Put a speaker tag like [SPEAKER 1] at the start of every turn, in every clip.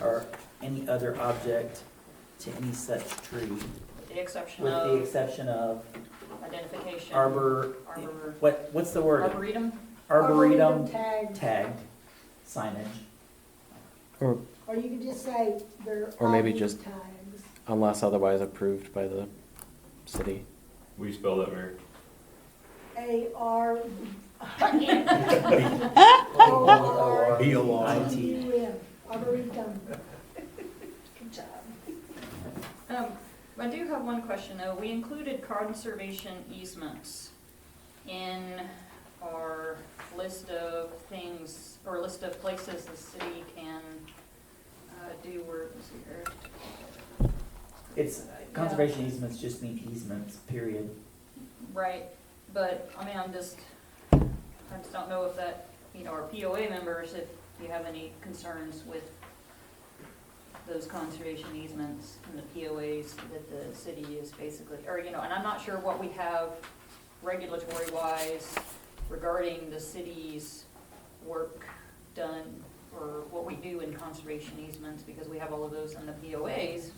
[SPEAKER 1] or any other object to any such tree,
[SPEAKER 2] with the exception
[SPEAKER 1] with the
[SPEAKER 2] of
[SPEAKER 1] exception of
[SPEAKER 2] identification.
[SPEAKER 1] arbor,
[SPEAKER 2] Arbor.
[SPEAKER 1] what, what's the word?
[SPEAKER 2] Arboretum?
[SPEAKER 1] Arboretum
[SPEAKER 3] Tags,
[SPEAKER 1] tagged signage.
[SPEAKER 4] Or
[SPEAKER 3] or you could just say they're.
[SPEAKER 4] Or maybe
[SPEAKER 3] arboretum
[SPEAKER 4] just-
[SPEAKER 3] Tags.
[SPEAKER 4] unless otherwise approved by the city.
[SPEAKER 5] We spell that, Mayor.
[SPEAKER 3] A R O R
[SPEAKER 1] B
[SPEAKER 6] Be along.
[SPEAKER 1] I
[SPEAKER 3] T
[SPEAKER 1] T.
[SPEAKER 3] U M, arboretum. Good job.
[SPEAKER 2] Um, I do have one question though. We included conservation easements in our list of things, or list of places the city can, uh, do work here.
[SPEAKER 1] It's, conservation easements just mean easements, period.
[SPEAKER 2] Right, but, I mean, I'm just, I just don't know if that, you know, our POA members, if you have any concerns with those conservation easements and the POAs that the city is basically, or, you know, and I'm not sure what we have regulatory-wise regarding the city's work done or what we do in conservation easements, because we have all of those in the POAs.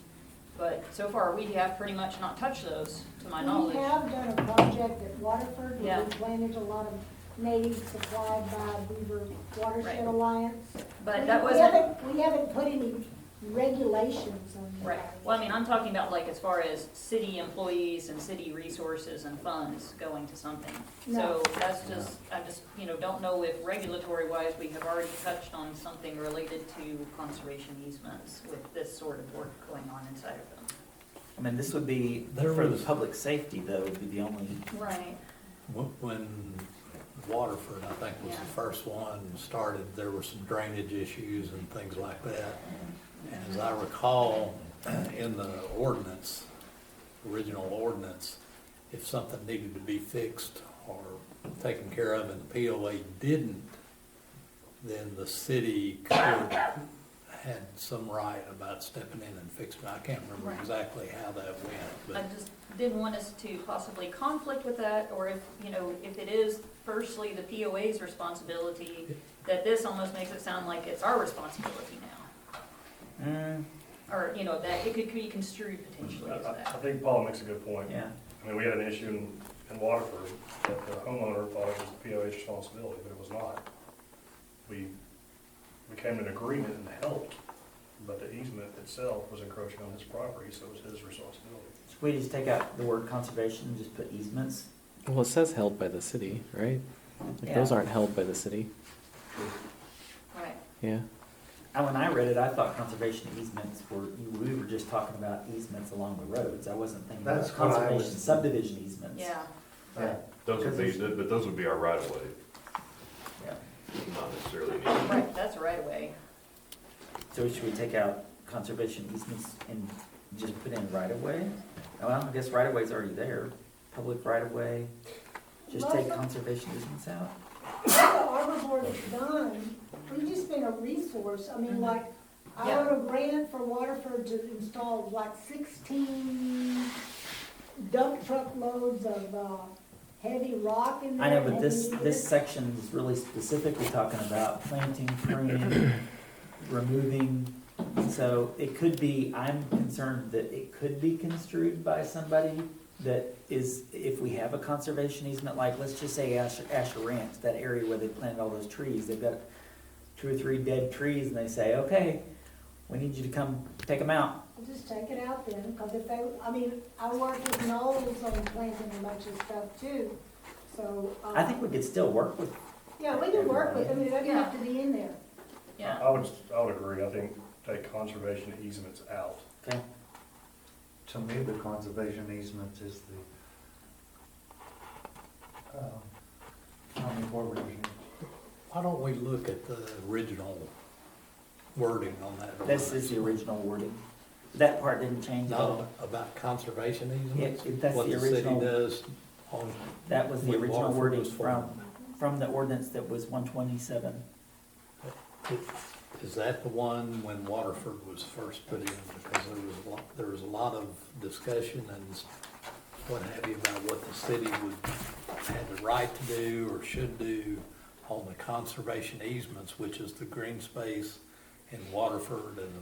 [SPEAKER 2] But so far, we have pretty much not touched those, to my knowledge.
[SPEAKER 3] We have done a project at Waterford, where
[SPEAKER 2] Yeah.
[SPEAKER 3] we planted a lot of natives supplied by Beaver Watershed
[SPEAKER 2] Right.
[SPEAKER 3] Alliance.
[SPEAKER 2] But
[SPEAKER 3] We-
[SPEAKER 2] that
[SPEAKER 3] we
[SPEAKER 2] wasn't,
[SPEAKER 3] haven't- We haven't put any regulations on that.
[SPEAKER 2] right, well, I mean, I'm talking about like as far as city employees and city resources and funds going to something. So
[SPEAKER 3] No.
[SPEAKER 2] that's just, I just, you know, don't know if regulatory wise, we have already touched on something related to conservation easements with this sort of work going on inside of
[SPEAKER 1] I mean, this would be
[SPEAKER 6] There
[SPEAKER 1] for the
[SPEAKER 6] was-
[SPEAKER 1] public safety, though, would be the only,
[SPEAKER 2] them. Right.
[SPEAKER 6] Wh- When Waterford, I think, was
[SPEAKER 2] Yeah.
[SPEAKER 6] the first one started, there were some drainage issues and things like that. And as I recall, in the ordinance, original ordinance, if something needed to be fixed or taken care of and the POA didn't, then the city could, had some right about stepping in and fixing. it. I can't remember
[SPEAKER 2] Right.
[SPEAKER 6] exactly how that went,
[SPEAKER 2] I
[SPEAKER 6] but
[SPEAKER 2] just didn't want us to possibly conflict with that, or if, you know, if it is firstly the POA's responsibility, that this almost makes it sound like it's our responsibility now.
[SPEAKER 1] mm,
[SPEAKER 2] Or, you know, that it could be construed potentially
[SPEAKER 7] I
[SPEAKER 2] as
[SPEAKER 7] I- I
[SPEAKER 2] that.
[SPEAKER 7] think Paul makes a good point.
[SPEAKER 1] yeah.
[SPEAKER 7] I mean, we had an issue in, in Waterford that the homeowner thought it was the POH's responsibility, but it was not. We, we came to an agreement and helped, but the easement itself was encroaching on his property, so it was his responsibility.
[SPEAKER 1] Should we just take out the word conservation and just put easements?
[SPEAKER 4] Well, it says held by the city, right? Like, Those
[SPEAKER 1] Yeah.
[SPEAKER 4] aren't held by the city.
[SPEAKER 2] Right,
[SPEAKER 4] Yeah.
[SPEAKER 1] And when I read it, I thought conservation easements were, we were just talking about easements along the roads. I wasn't thinking about
[SPEAKER 6] That's what I
[SPEAKER 1] conservation
[SPEAKER 6] was-
[SPEAKER 1] subdivision easements.
[SPEAKER 2] yeah.
[SPEAKER 1] Yeah.
[SPEAKER 5] Those would be,
[SPEAKER 1] Because it's-
[SPEAKER 5] but those would be our right of way,
[SPEAKER 1] Yeah.
[SPEAKER 5] not necessarily. an easement.
[SPEAKER 2] Right, that's right away.
[SPEAKER 1] So should we take out conservation easements and just put in right of way? Well, I guess right of way's already there, public right of way. Just take
[SPEAKER 3] Well,
[SPEAKER 1] conservation easements out?
[SPEAKER 3] The Arbor Board has done, we've just been a resource, I mean,
[SPEAKER 1] Mm-hmm.
[SPEAKER 2] Mhm.
[SPEAKER 3] like, I
[SPEAKER 2] Yeah.
[SPEAKER 3] wrote a grant for Waterford to install like sixteen dump truck loads of, uh, heavy rock in there.
[SPEAKER 1] I know, but this,
[SPEAKER 3] heavy-
[SPEAKER 1] this section is really specifically talking about planting, pruning, removing. So it could be, I'm concerned that it could be construed by somebody that is, if we have a conservation easement, like, let's just say Asher, Asher Ranch, that area where they planted all those trees, they've got two or three dead trees and they say, okay, we need you to come take them out.
[SPEAKER 3] I'll Just take it out then, because if they, I mean, I worked with Knowles on planting a bunch of stuff too, so. uh,
[SPEAKER 1] I think we could still work with,
[SPEAKER 3] Yeah, we can work with, I mean, it doesn't have
[SPEAKER 2] Yeah.
[SPEAKER 3] to be in there.
[SPEAKER 2] Yeah,
[SPEAKER 7] I would, I would agree, I think take conservation easements out.
[SPEAKER 1] okay,
[SPEAKER 8] To me, the conservation easement is the, um, county board review.
[SPEAKER 6] Why don't we look at the original wording on that?
[SPEAKER 1] this is the original wording. That part didn't change at all.
[SPEAKER 6] Not about conservation easements?
[SPEAKER 1] Yeah, that's the original-
[SPEAKER 6] What the city does on.
[SPEAKER 1] That was the
[SPEAKER 6] with
[SPEAKER 1] original
[SPEAKER 6] Waterford
[SPEAKER 1] wording
[SPEAKER 6] was for-
[SPEAKER 1] from, from the ordinance that was one twenty-seven.
[SPEAKER 6] Is that the one when Waterford was first put in? Because there was a lot, there was a lot of discussion and what have you about what the city would, had the right to do or should do on the conservation easements, which is the green space in Waterford and